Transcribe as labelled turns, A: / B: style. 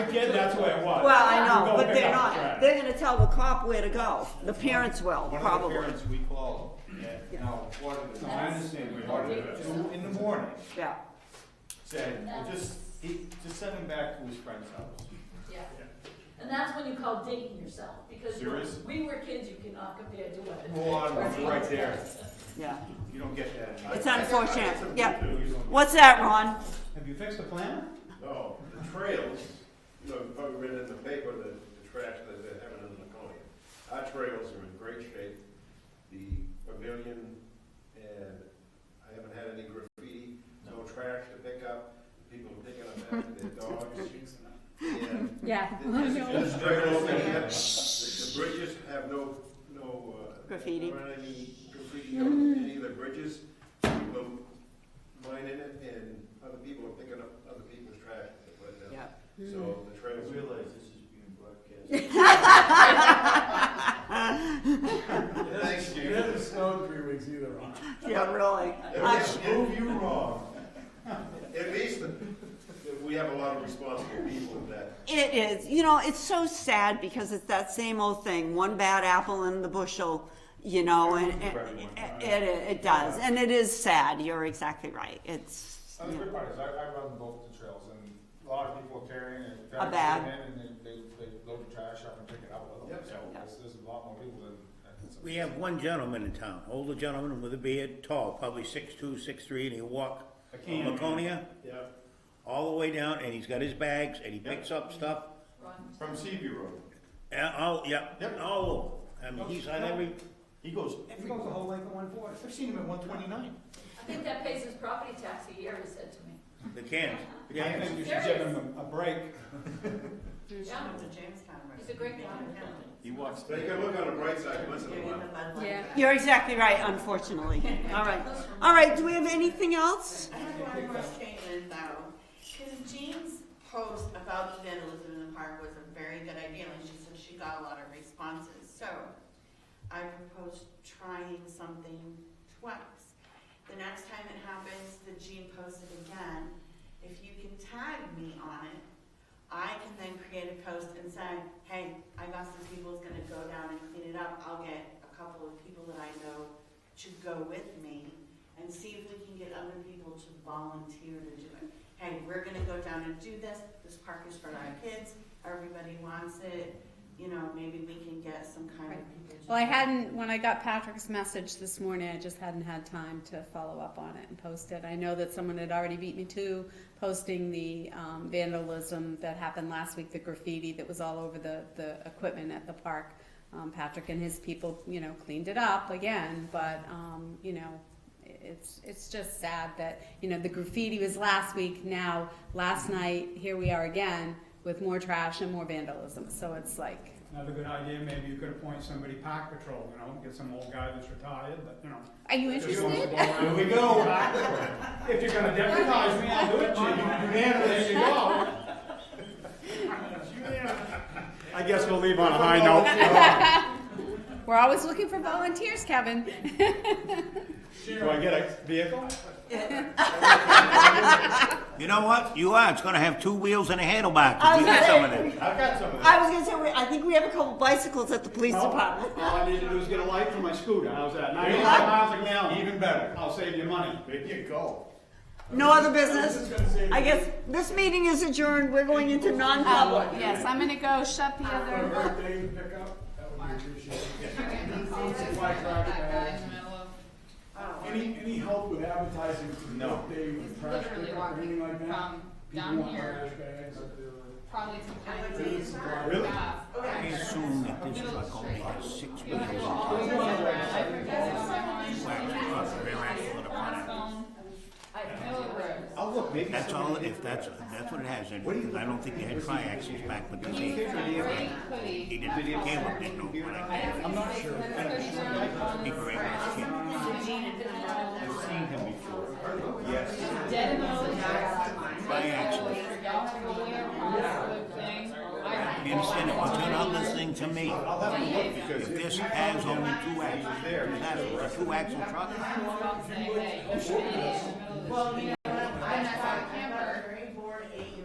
A: kid, that's where it was.
B: Well, I
A: You
B: know,
A: go
B: but
A: pick
B: they're
A: up the
B: not,
A: trash.
B: they're gonna tell the cop where to go, the parents will,
C: One of the
B: probably,
C: parents we called at, now, quarter to, I understand, quarter to two in the morning,
B: yeah.
C: said, just, he, just send him back to his friend's house.
D: Yeah. And that's when you call dating yourself, because
C: Seriously?
D: when we were kids, you cannot compare to what.
C: Go on, it's right there,
B: Yeah,
C: you don't get that.
B: it's unfortunate, yeah.
A: You don't-
B: What's that, Ron?
E: Have you fixed the plan?
F: No, the trails, you know, you've probably read in the paper, the, the trash that they're having in Laconia. Our trails are in great shape, the pavilion, and I haven't had any graffiti, no trash to pick up, people are picking up after their dogs. And
G: Yeah.
F: the- It's very open here. The bridges have no, no, uh.
B: Graffiti.
F: there aren't any graffiti on any of the bridges. People mine in it and other people are picking up other people's trash. and putting it
B: Yeah.
F: out. So the
C: I
F: trails.
C: realize this is being broadcast.
F: Thank
H: It hasn't snowed three weeks either, Ron.
B: Yeah, really. I-
C: Prove you wrong.
F: At least that we have a lot of responsible people in that.
B: It is, you know, it's so sad because it's that same old thing, one bad apple in the bushel, you know, and, and it, it, it does, and it is sad, you're exactly right, it's,
E: Uh, The good part is, I, I run both the trails, and a lot of people are carrying and.
B: A bag.
E: And they, they, they load the trash up and pick it up with them,
F: Yep.
E: so there's, there's a lot more people than. than-
I: We have one gentleman in town, older gentleman with a beard, tall, probably six two, six three, and he walk Laconia
F: Yeah.
I: all the way down, and he's got his bags, and he picks up stuff.
D: Ron,
C: From Seaview Road.
I: And all, yeah,
C: Yep.
I: all over. I mean, he's on every,
C: He goes,
E: It goes the whole length of one forty.
C: I've seen him at one twenty-nine.
D: I think that pays his property tax a year, he said to me.
I: the cans.
C: Yeah, I think you should give him a break.
D: Yeah, he's a great guy.
C: He walks.
F: But you can look on the bright side once in a while.
G: Yeah.
B: you're exactly right, unfortunately, all right. All right, do we have anything else?
J: I have one more statement though, because Jean's post about the vandalism in the park was a very good idea, and she said she got a lot of responses, so I propose trying something twice. The next time it happens, that Jean posts it again, if you can tag me on it, I can then create a post and say, hey, I got some people's gonna go down and clean it up, I'll get a couple of people that I know to go with me and see if we can get other people to volunteer to do it. Hey, we're gonna go down and do this, this park is for our kids, everybody wants it, you know, maybe we can get some kind of people to.
G: Well, I hadn't, when I got Patrick's message this morning, I just hadn't had time to follow up on it and post it. I know that someone had already beat me to posting the um, vandalism that happened last week, the graffiti that was all over the, the equipment at the park. Um, Patrick and his people, you know, cleaned it up again, but, um, you know, it's, it's just sad that, you know, the graffiti was last week, now, last night, here we are again with more trash and more vandalism. So it's like,
H: Another good idea, maybe you could appoint somebody park patrol, you know, get some old guy that's retired, but, you know.
G: are you
H: just wants to
G: interested?
H: go around.
C: Here we go.
H: If you're gonna deputize me, I'll do it, Chief. There you go.
C: I guess we'll leave on a high note.
G: We're always looking for volunteers, Kevin.
C: Do I get a vehicle?
I: You know what? You are. It's gonna have two wheels and a handlebar, 'cause
B: I
I: we
B: was
I: got some
B: gonna
I: of them.
C: I've got some of that.
B: I was gonna say, we- I think we have a couple bicycles at the police department.
H: All I need to do is get a light for my scooter, how's that? Ninety-five miles a gallon,
C: Even better.
H: I'll save you money.
C: There you go.
B: No other business? I guess this meeting is adjourned, we're going into non-public.
G: Yes, I'm gonna go shut the other.
H: Birthday pickup, that would be appreciated. Any, any help with advertising?
C: No.
H: Birthday, trash pickup, or anything like that? People want trash bags.
G: probably
C: Really?
I: I assume that this is like only a six wheels.
C: I'll look, maybe.
I: That's all, if that's, that's what it has, and I don't think they had triaxles back with the day. He didn't, he came up, didn't know what I meant. I'm not sure. He very much came. I've seen him before,
C: Yes.
I: by accident. You understand, if you turn on this thing to me,
C: I'll have to look because
I: if
C: it-
I: this has only two axles,
C: there.
I: that's a two-axle truck,
J: Well, you know,